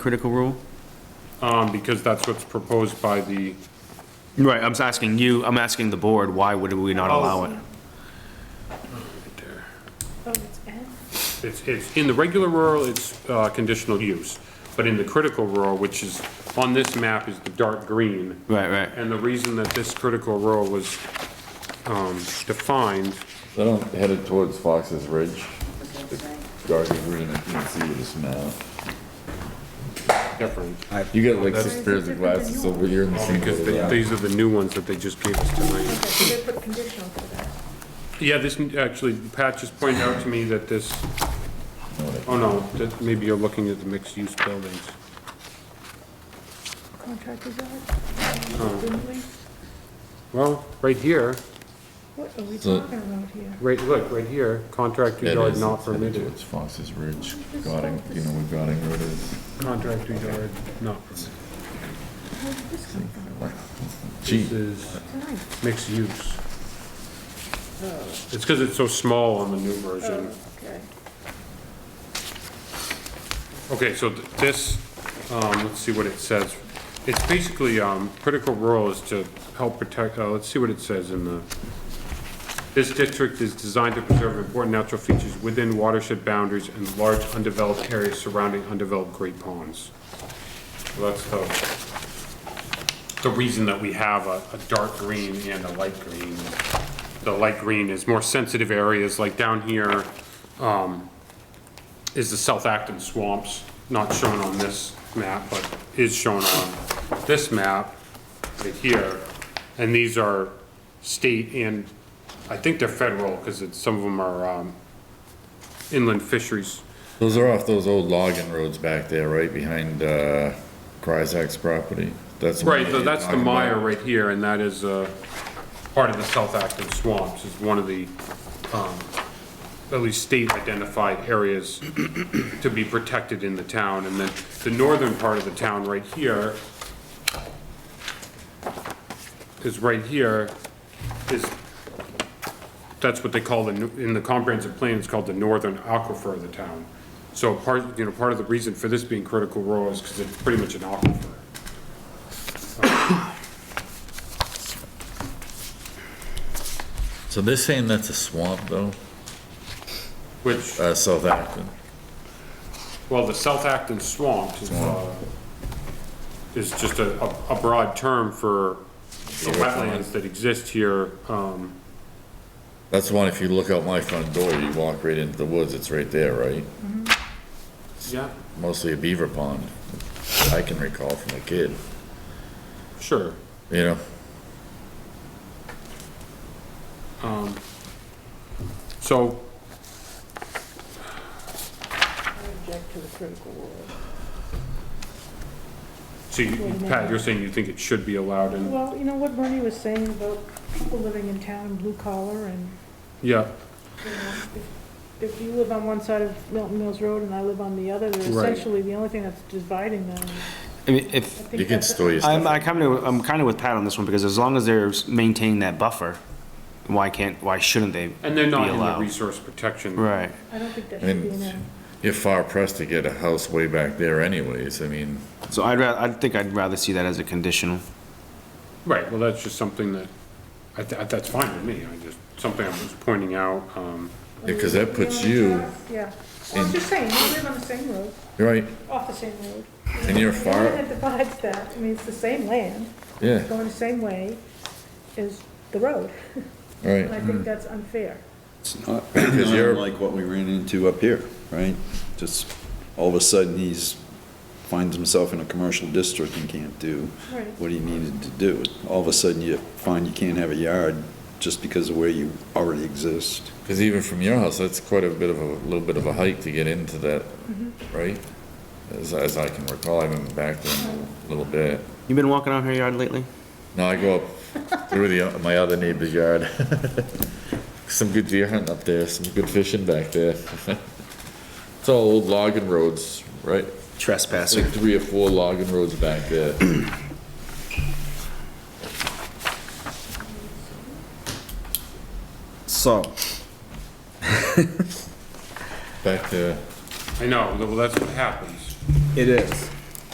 critical rule? um, because that's what's proposed by the, Right, I'm asking you, I'm asking the board, why would we not allow it? Oh, it's N? it's, it's, in the regular rural, it's, uh, conditional use. But in the critical rural, which is, on this map is the dark green. Right, right. And the reason that this critical rural was, um, defined, They don't headed towards Fox's Ridge. Dark green, I can see with this map. different, You got like six pairs of glasses over here in the same. because they- little these are the new ones that they just gave us tonight. Okay, so they put conditional for that. Yeah, this, actually, Pat just pointed out to me that this, oh no, that maybe you're looking at the mixed-use buildings. Contractors Oh. out, didn't we? Well, right here, What are we So- talking about here? right, look, right here, contractor It yard is, not it's headed permitted. Towards Fox's Ridge, Godding, you know where Godding Road is. Contractor yard not permitted. Where did this come from? This Gee, is Nine. mixed use. Oh, It's because it's so small on the new version. okay. Okay, so th- this, um, let's see what it says. It's basically, um, critical role is to help protect, uh, let's see what it says in the, this district is designed to preserve important natural features within watershed boundaries and large undeveloped areas surrounding undeveloped great ponds. So that's the, the reason that we have a, a dark green and a light green. The light green is more sensitive areas, like down here, um, is the South Acton Swamps, not shown on this map, but is shown on this map right here. And these are state and, I think they're federal, because it's, some of them are, um, inland fisheries. those are off those old logging roads back there, right behind, uh, Cryzak's property. That's. the one Right, that so you're that's the talking about. mire right here, and that is, uh, part of the South Acton Swamps, is one of the, um, at least state identified areas to be protected in the town, and then the northern part of the town right here is right here, is, that's what they call the, nu- in the comprehensive plan, it's called the northern aquifer of the town. So part, you know, part of the reason for this being critical role is because it's pretty much an aquifer. So they're saying that's a swamp though, Which, uh, South Acton. well, the South Acton Swamp is, uh, is just a, a- a broad term for the wetlands that exist here. Um, That's the one, if you look out my front door, you walk right into the woods, it's right there, right? yeah, Mostly a beaver pond, I can recall from a kid, sure. you know? So, I object to the critical rule. so you, Pat, you're saying you think it should be allowed in, Well, you know what Bernie was saying about people living in town, blue collar, and, yeah, you know, if- if you live on one side of Milton Mills Road and I live on the other, they're Right. essentially the only thing that's dividing them. I mean, if, I think You can that's- store your I'm, stuff. I come to, I'm kind of with Pat on this one, because as long as they're maintaining that buffer, why can't, why shouldn't they be allowed? and they're not in the resource protection. Right. I don't think that I should be mean, in a, you're far pressed to get a house way back there anyways, I mean, So I'd rather, I think I'd rather see that as a conditional. Right, well, that's just something that, I, th- that's fine with me, I just, something I was pointing out, um, because that puts Yeah, you, Yeah, well, I'm just saying, we live on the same road, right, off the same road. and you're The only thing far, that divides that, I mean, it's the same land, yeah, going the same way, is the road. And I right. think that's unfair. Because you're- Like what we ran into up here, right? Just all of a sudden, he's, finds himself in a commercial district and can't do Right. what he needed to do. All of a sudden, you find you can't have a yard just because of where you already exist. Because even from your house, that's quite a bit of a, little bit of a hike to get into that, right? As, as I can recall, I've been back there a little bit. You been walking out her yard lately? No, I go up through the, my other neighbor's yard. Some good deer hunting up there, some good fishing back there. It's all old logging roads, right? Trespassing. Like three or four logging roads back there. So, Back there. I know, well, that's what happens. it is.